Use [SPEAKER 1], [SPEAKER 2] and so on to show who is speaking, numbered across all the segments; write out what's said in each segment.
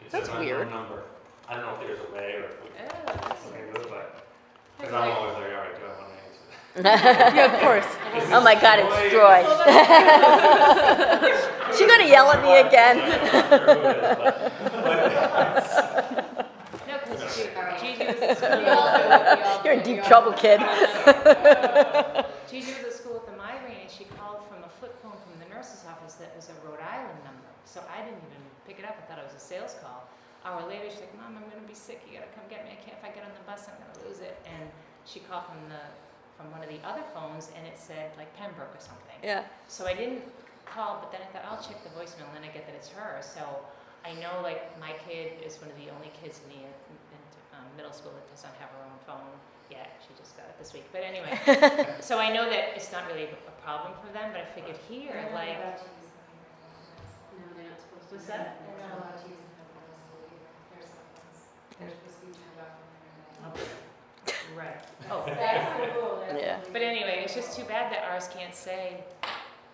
[SPEAKER 1] It's
[SPEAKER 2] That's
[SPEAKER 1] an unknown
[SPEAKER 2] weird.
[SPEAKER 1] Number. I don't know if there's a way or if we
[SPEAKER 3] Oh, that's-
[SPEAKER 1] can do it, but, because I'm always like, all right, do I want to answer?
[SPEAKER 4] yeah, of course. Oh my God, it's Joy.
[SPEAKER 3] Well, that's-
[SPEAKER 4] She's gonna yell at me again.
[SPEAKER 5] No, because you do. I mean,
[SPEAKER 3] Gigi was at school.
[SPEAKER 5] we all do it, we all do
[SPEAKER 4] You're in
[SPEAKER 5] it, we
[SPEAKER 4] deep
[SPEAKER 5] all-
[SPEAKER 4] trouble, kid.
[SPEAKER 5] Gigi was at school with a migraine, and she called from a flip phone from the nurse's office that was a Rhode Island number. So I didn't even pick it up. I thought it was a sales call. Hour later, she's like, "Mom, I'm gonna be sick. You gotta come get me. I can't. If I get on the bus, I'm gonna lose it." And she called from the from one of the other phones, and it said like Pembroke or something.
[SPEAKER 4] Yeah.
[SPEAKER 5] So I didn't call, but then I thought I'll check the voicemail, and then I get that it's her. So I know like my kid is one of the only kids in the in, um, middle school that does not have her own phone yet. She just got it this week. But anyway, so I know that it's not really a problem for them. But I figured here,
[SPEAKER 6] They're not
[SPEAKER 5] like,
[SPEAKER 6] allowed to use the microphone. No, they're not supposed to.
[SPEAKER 5] What's
[SPEAKER 6] use them.
[SPEAKER 5] that?
[SPEAKER 6] They're not allowed to use the microphone school either. They're supposed to- They're supposed to be turned off when they're in
[SPEAKER 5] right? Oh,
[SPEAKER 6] there. That's the rule. that's
[SPEAKER 4] Yeah.
[SPEAKER 6] the
[SPEAKER 5] but
[SPEAKER 6] legal
[SPEAKER 5] anyway, it's just too
[SPEAKER 6] rule.
[SPEAKER 5] bad that ours can't say.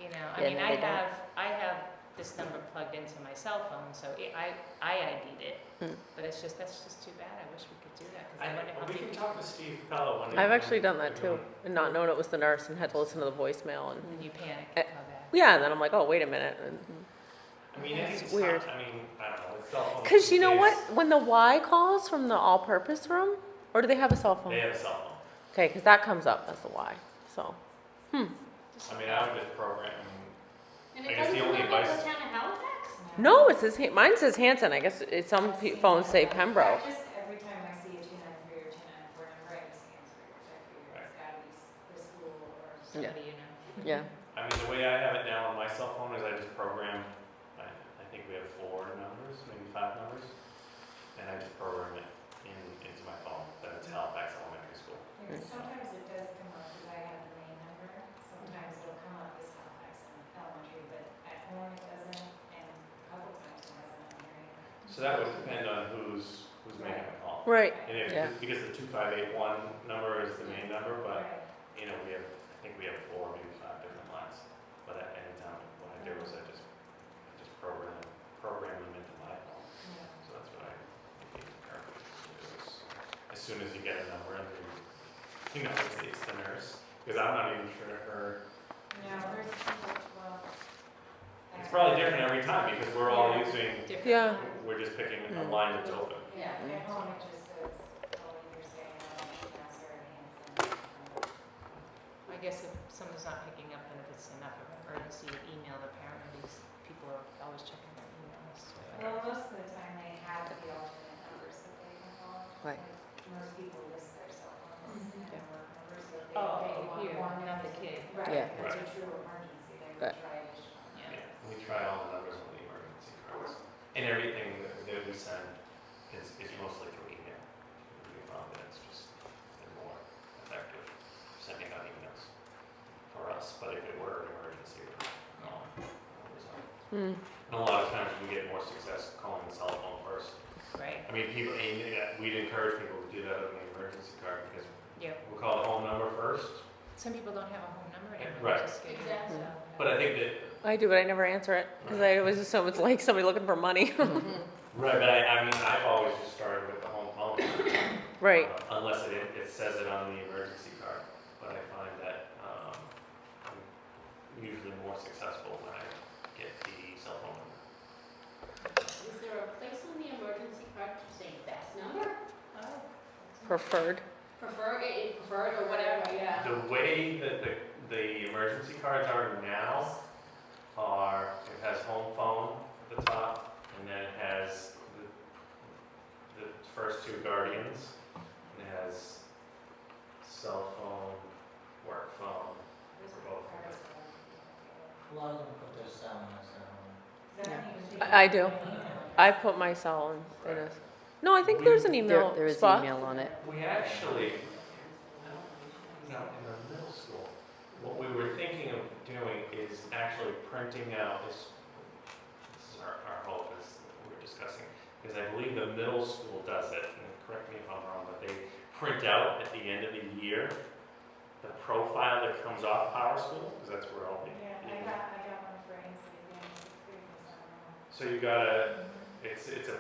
[SPEAKER 5] You know, I
[SPEAKER 4] Yeah,
[SPEAKER 5] mean,
[SPEAKER 4] no,
[SPEAKER 5] I
[SPEAKER 4] they don't.
[SPEAKER 5] have I have this number plugged into my cell phone, so it, I I ID'd it.
[SPEAKER 4] Hmm.
[SPEAKER 5] But it's just that's just too bad. I wish we could do that because I, wonder
[SPEAKER 1] I,
[SPEAKER 5] how
[SPEAKER 1] we
[SPEAKER 5] many
[SPEAKER 1] can talk to Steve Pello one day.
[SPEAKER 2] I've actually done that too,
[SPEAKER 1] Everyone-
[SPEAKER 2] and not known it was the nurse and had to listen to the voicemail and,
[SPEAKER 5] when you panic
[SPEAKER 2] Uh,
[SPEAKER 5] and call back.
[SPEAKER 2] yeah, and then I'm like, oh, wait a minute. and-
[SPEAKER 1] I mean,
[SPEAKER 2] It's
[SPEAKER 1] it's
[SPEAKER 2] weird.
[SPEAKER 1] weird. I mean, I don't know. It's cell phones
[SPEAKER 2] Cause you know
[SPEAKER 1] these
[SPEAKER 2] what,
[SPEAKER 1] days,
[SPEAKER 2] when the Y calls from the all-purpose room, or do they have a cell
[SPEAKER 1] They
[SPEAKER 2] phone?
[SPEAKER 1] have a cell
[SPEAKER 2] Okay, cause that comes up as the Y, so.
[SPEAKER 1] phone. I mean, I would just program.
[SPEAKER 6] And
[SPEAKER 1] I
[SPEAKER 6] it
[SPEAKER 1] guess
[SPEAKER 6] doesn't
[SPEAKER 1] the
[SPEAKER 6] come
[SPEAKER 1] only
[SPEAKER 6] up with
[SPEAKER 1] advice-
[SPEAKER 6] the town of Halifax?
[SPEAKER 2] No, it says, Han- mine says Hanson, I guess it, some pe- phones say Pembroke.
[SPEAKER 6] I just, every time I see a two nine three or two nine four number, I just answer it, 'cause I figure it's gotta be s- the school or something.
[SPEAKER 5] Somebody you know.
[SPEAKER 2] Yeah,
[SPEAKER 1] I mean, the way I have it now on my cell phone is I just program, I, I think we have four numbers, maybe five numbers, and I just program it in, into my phone, that it's Halifax Elementary School.
[SPEAKER 6] And Sometimes it does come up, because I have the main number, sometimes it'll come up as Halifax Elementary, but at home it doesn't, and a couple times it hasn't on here.
[SPEAKER 1] So that would depend on who's, who's making the call.
[SPEAKER 2] right,
[SPEAKER 1] And if,
[SPEAKER 2] Yeah.
[SPEAKER 1] because the two five eight one number is the main number, but,
[SPEAKER 6] Right.
[SPEAKER 1] you know, we have, I think we have four, maybe five different lines. But at any time, what I do is I just, I just program, program them into my phone.
[SPEAKER 6] Yeah.
[SPEAKER 1] So that's what I think the nurse is. As soon as you get a number, and you, you know, it's, it's the nurse, because I'm not even sure her,
[SPEAKER 6] No, there's people, well.
[SPEAKER 1] it's probably different every time, because we're all using,
[SPEAKER 5] Different
[SPEAKER 2] Yeah.
[SPEAKER 5] time.
[SPEAKER 1] we're just picking a
[SPEAKER 2] Mm.
[SPEAKER 1] line that's open.
[SPEAKER 6] Yeah, at home it just says, oh, you're saying, oh, Pastor Hanson.
[SPEAKER 5] I guess if someone's not picking up, then if it's enough of an emergency, you email the parent, and these people are always checking their emails. so-
[SPEAKER 6] Well, most of the time they have the alternate numbers that they can call.
[SPEAKER 2] Right.
[SPEAKER 6] Like, Most people list their cell phones and
[SPEAKER 2] Yeah.
[SPEAKER 6] their work numbers, so they
[SPEAKER 5] Oh,
[SPEAKER 6] they
[SPEAKER 5] okay,
[SPEAKER 6] want
[SPEAKER 5] here,
[SPEAKER 6] one.
[SPEAKER 5] not the kid.
[SPEAKER 2] Yeah.
[SPEAKER 6] Right, that's a
[SPEAKER 1] Right.
[SPEAKER 6] true emergency, they would
[SPEAKER 2] Right.
[SPEAKER 6] try to. sh-
[SPEAKER 1] Yeah, we try all the numbers on the emergency cards, and everything that that we send is, is mostly through email. We found that it's just, they're more effective sending out emails for us, but if it were an emergency, we would call.
[SPEAKER 2] mm,
[SPEAKER 1] And a lot of times we get more success calling the cell phone first.
[SPEAKER 5] Right,
[SPEAKER 1] I mean, people, and uh, we'd encourage people to do that on the emergency card, because
[SPEAKER 5] yeah.
[SPEAKER 1] we'll call the home number first,
[SPEAKER 5] Some people don't have a home number
[SPEAKER 1] Yeah,
[SPEAKER 5] anymore.
[SPEAKER 1] right.
[SPEAKER 5] which is good,
[SPEAKER 6] Exactly.
[SPEAKER 5] so-
[SPEAKER 1] but I think that
[SPEAKER 2] I do, but I never answer it, cause I always assume it's like somebody looking for money,
[SPEAKER 1] Right, but I, I mean, I've always just started with the home phone.
[SPEAKER 2] right,
[SPEAKER 1] uh, Unless it, it says it on the emergency card, but I find that, um, I'm usually more successful when I get the cell phone number.
[SPEAKER 6] Is there a place on the emergency card to say best number,
[SPEAKER 5] Oh.
[SPEAKER 2] preferred.
[SPEAKER 6] prefer, preferred or whatever, yeah?
[SPEAKER 1] The way that the, the emergency cards are now are, it has home phone at the top, and then it has the, the first two guardians, and it has cell phone, work phone,
[SPEAKER 7] A lot of them put their cell on their cell.
[SPEAKER 2] I- I do. I put my cell in, in a, no, I think there's an
[SPEAKER 4] There,
[SPEAKER 2] email
[SPEAKER 4] there is
[SPEAKER 2] spot.
[SPEAKER 4] email on it.
[SPEAKER 1] We actually, no, in the middle school, what we were thinking of doing is actually printing out this, this is our, our hope is what we're discussing, because I believe the middle school does it, and correct me if I'm wrong, but they print out at the end of the year the profile that comes off Power School, because that's where all the.
[SPEAKER 6] Yeah, I got, I got one for Ainsley, yeah, it's pretty much, I don't know.
[SPEAKER 1] So you gotta, it's, it's a